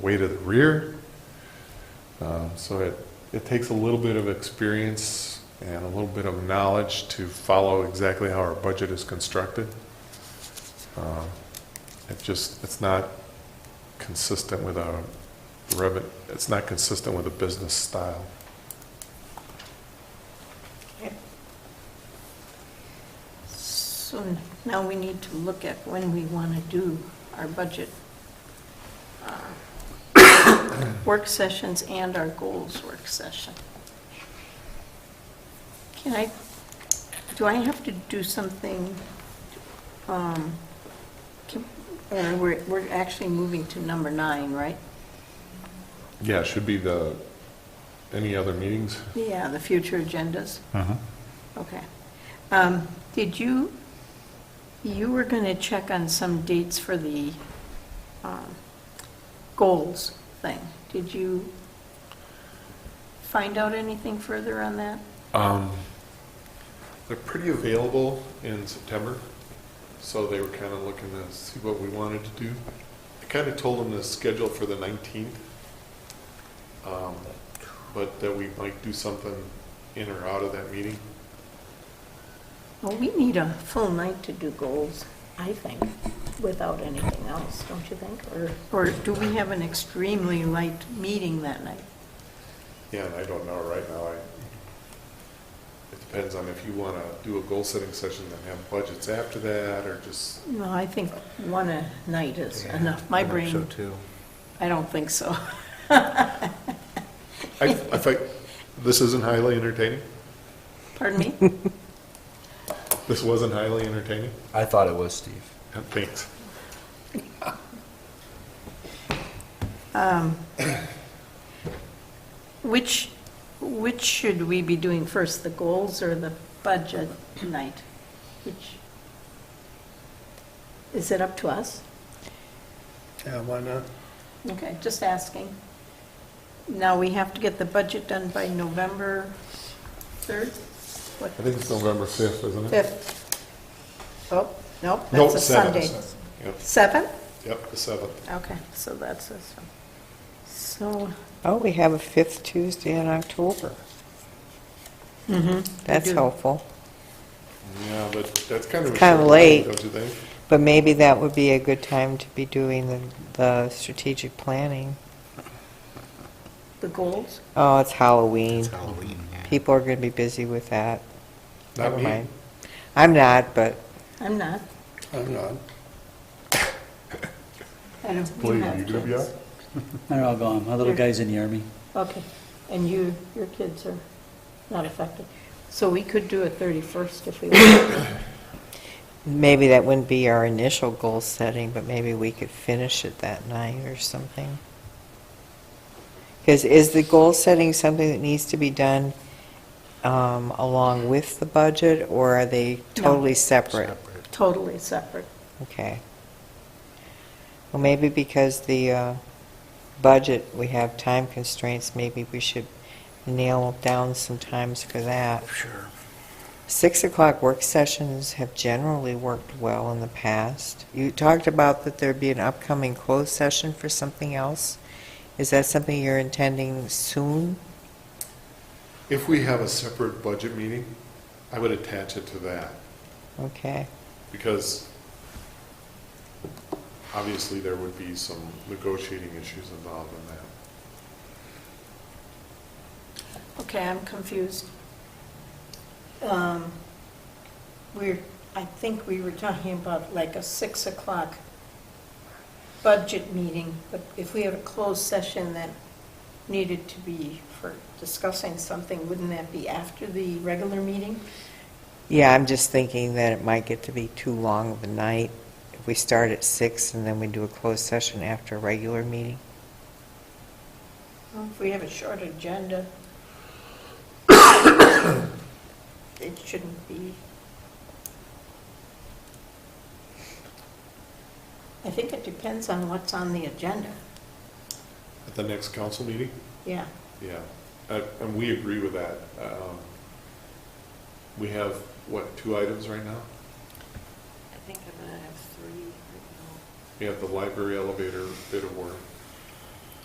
way to the rear. Um, So it, it takes a little bit of experience and a little bit of knowledge to follow exactly how our budget is constructed. Um, It just, it's not consistent with our revenue, it's not consistent with the business style. So now we need to look at when we want to do our budget uh, work sessions and our goals work session. Can I, do I have to do something? um, can- Or we're, we're actually moving to number nine, right? Yeah, it should be the, any other meetings? Yeah, the future agendas. Uh-huh. Okay. Um, Did you, you were going to check on some dates for the um, goals thing. Did you find out anything further on that? Um, They're pretty available in September, so they were kind of looking to see what we wanted to do. I kind of told them to schedule for the 19th, um, but that we might do something in or out of that meeting. Well, we need a full night to do goals, I think, without anything else, don't you think? Or, or do we have an extremely light meeting that night? Yeah, and I don't know right now. I- It depends on if you want to do a goal-setting session, then have budgets after that, or just, No, I think one a night is enough. My brain, too. I don't think so. I I think, this isn't highly entertaining? Pardon me? This wasn't highly entertaining? I thought it was Steve. Thanks. Um, Which, which should we be doing first, the goals or the budget tonight? Which, is it up to us? Yeah, why not? Okay, just asking. Now, we have to get the budget done by November 3rd? What, I think it's November 5th, isn't it? 5th? Oh, nope, No, that's a seventh. Sunday. Yep, 7th? Yep, the 7th. Okay, so that's this one. So, Oh, we have a fifth Tuesday in October. That's do. helpful. Yeah, but that's kind of. a short It's kinda time, late. Don't you think? But maybe that would be a good time to be doing the, the strategic planning. the goals? Oh, it's Halloween. Halloween. People are going to be busy with that. Not Never me. mind. I'm not, but I'm not. I'm not. I don't. Believe have me, you gonna be kids. out? They're all gone. My little Here. guy's in the army. Okay, and you, your kids are not affected. So we could do it 31st if we want. maybe that wouldn't be our initial goal setting, but maybe we could finish it that night or something. Because is the goal setting something that needs to be done um, along with the budget, or are they No. totally separate? Totally separate. Okay. Well, maybe because the uh, budget, we have time constraints, maybe we should nail down some times for that. Sure. Six o'clock work sessions have generally worked well in the past. You talked about that there'd be an upcoming closed session for something else. Is that something you're intending soon? If we have a separate budget meeting, I would attach it to that, Okay, because obviously there would be some negotiating issues involved in that. Okay, I'm confused. Um, We're, I think we were talking about like a 6 o'clock budget meeting, but if we had a closed session that needed to be for discussing something, wouldn't that be after the regular meeting? yeah, I'm just thinking that it might get to be too long of a night if we start at six and then we do a closed session after a regular meeting. Well, If we have a short agenda, it shouldn't be. I think it depends on what's on the agenda, At the next council meeting? yeah. Yeah, Uh, and we agree with that. Um, We have, what, two items right now? I think I'm gonna have three right now. We have the library elevator bit of work,